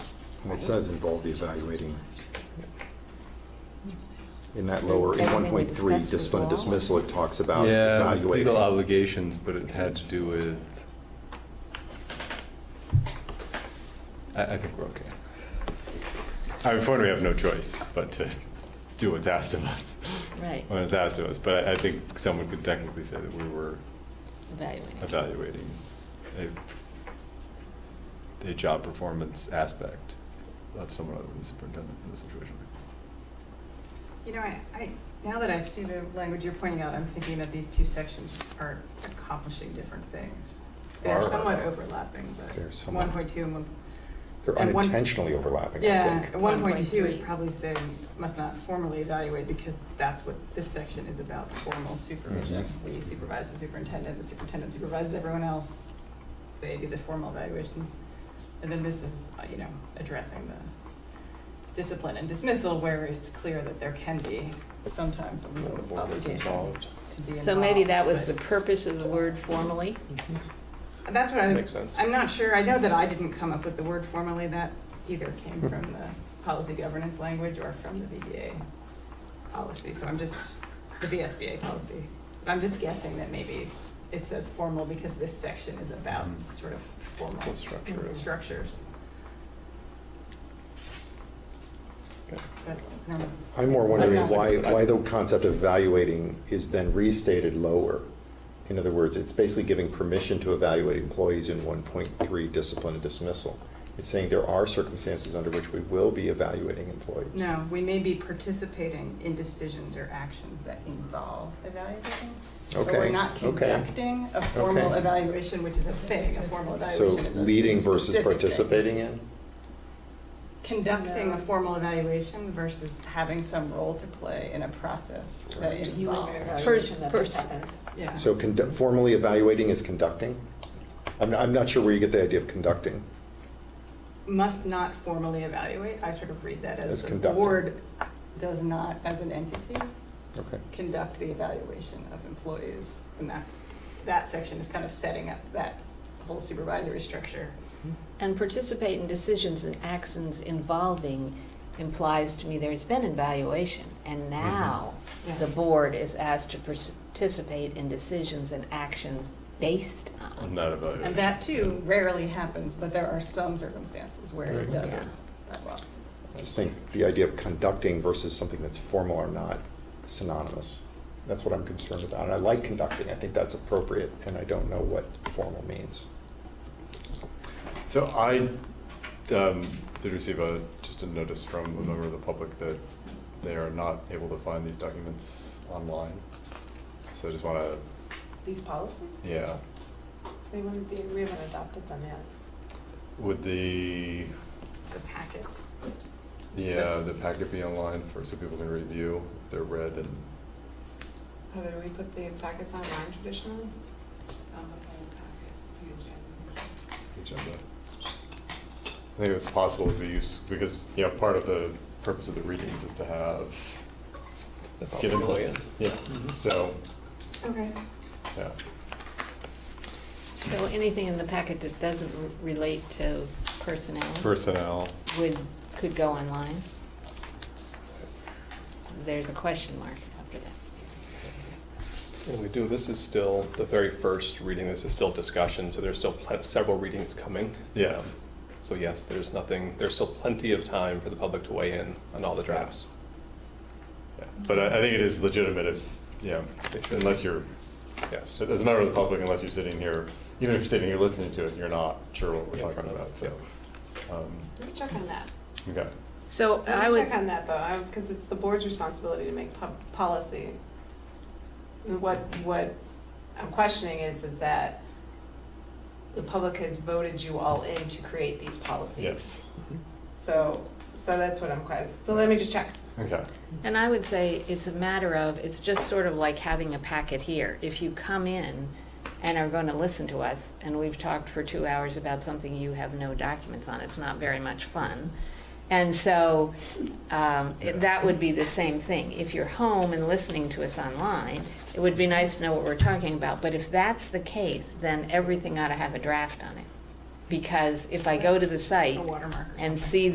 And it says involve the evaluating. In that lower, in Everything we 1.3, discussed was discipline law. dismissal, it talks about Yeah, it was legal evaluating. obligations, but it had to do with. I, I think we're okay. I mean, for one, we have no choice but to do what's asked of us, Right, when it's asked of us, but I think someone could technically say that we were evaluating. evaluating a, a job performance aspect of someone other than the superintendent in this situation. You know, I, I, now that I see the language you're pointing out, I'm thinking that these two sections are accomplishing different things. They're Are. somewhat overlapping, but They're somewhat- one point two and one, They're and one- unintentionally overlapping, I yeah, think. one point two 1.3. would probably say must not formally evaluate because that's what this section is about, formal supervision. Mm-hmm. We supervise the superintendent, the superintendent supervises everyone else, they do the formal evaluations. And then this is, uh, you know, addressing the discipline and dismissal where it's clear that there can be sometimes a legal The board is obligation involved. to be involved. So maybe that was the but- purpose of the word formally? And That's what I, Makes sense. I'm not sure, I know that I didn't come up with the word formally, that either Hmm. came from the policy governance language or from the VBA policy, so I'm just, the VSBA policy. But I'm just guessing that maybe it says formal because this section is about Mm. sort of formal The Hmm. structure of- structures. Okay. But, no, I'm more wondering I'm not- why, why the concept of evaluating is then restated lower. In other words, it's basically giving permission to evaluate employees in 1.3 discipline and dismissal. It's saying there are circumstances under which we will be evaluating employees. No, we may be participating in decisions or actions that involve evaluating. But Okay. we're not okay. conducting a formal Okay. evaluation, which is a thing, a formal So evaluation is a leading versus specific thing. participating in? Conducting No. a formal evaluation versus having some role to play in a process that Correct. You would involves. get evaluation that Pers- has happened. Yeah. So condu- formally evaluating is conducting? I'm, I'm not sure where you get the idea of conducting. Must not formally evaluate, I sort of read that As as the conducting. board does not, as an entity, Okay. conduct the evaluation of employees. And that's, that section is kind of setting up that whole supervisory structure. And participate in decisions and actions involving implies to me there's been an evaluation, and Mm-hmm. now Yeah. the board is asked to participate in decisions and actions based on. Not evaluating. And that too rarely happens, but there are some circumstances where it Right. doesn't. that well. I just think the idea of conducting versus something that's formal or not synonymous. That's what I'm concerned about. And I like conducting. I think that's appropriate, and I don't know what formal means. So I um, did receive a, just a notice from a member of the public that they are not able to find these documents online. So I just want to, These policies, yeah, they wouldn't be, we haven't adopted them yet. would the, The packet. yeah, the packet be online for, so people can review if they're read and, Heather, do we put the packets online traditionally? agenda. I think it's possible to use, because, you know, part of the purpose of the readings is to have, The public Given- will, yeah. yeah, so, Okay. yeah. So anything in the packet that doesn't r- relate to personnel Personnel, would, could go online? There's a question mark after that. And we do, this is still, the very first reading, this is still discussion, so there's still pl- several readings coming. Yes. Um, So yes, there's nothing, there's still plenty of time for the public to weigh in on all the drafts. yeah. but I, I think it is legitimate if, you know, unless you're Yes. So As a member of the public, unless you're sitting here, even if you're sitting here listening to it, you're not sure what Yeah, we're talking probably, about, so. um, Let me check on that. Okay, So I Let me would, check on that though, because it's the board's responsibility to make po- policy. And What, what I'm questioning is, is that the public has voted you all in to create these policies. yes, So, so that's what I'm questioning. So let me just check. okay, and I would say it's a matter of, it's just sort of like having a packet here. If you come in and are going to listen to us, and we've talked for two hours about something you have no documents on, it's not very much fun. And so um, it- that would be the same thing. If you're home and listening to us online, it would be nice to know what we're talking about. But if that's the case, then everything ought to have a draft on it. Because if I go to the site A watermark or and something. see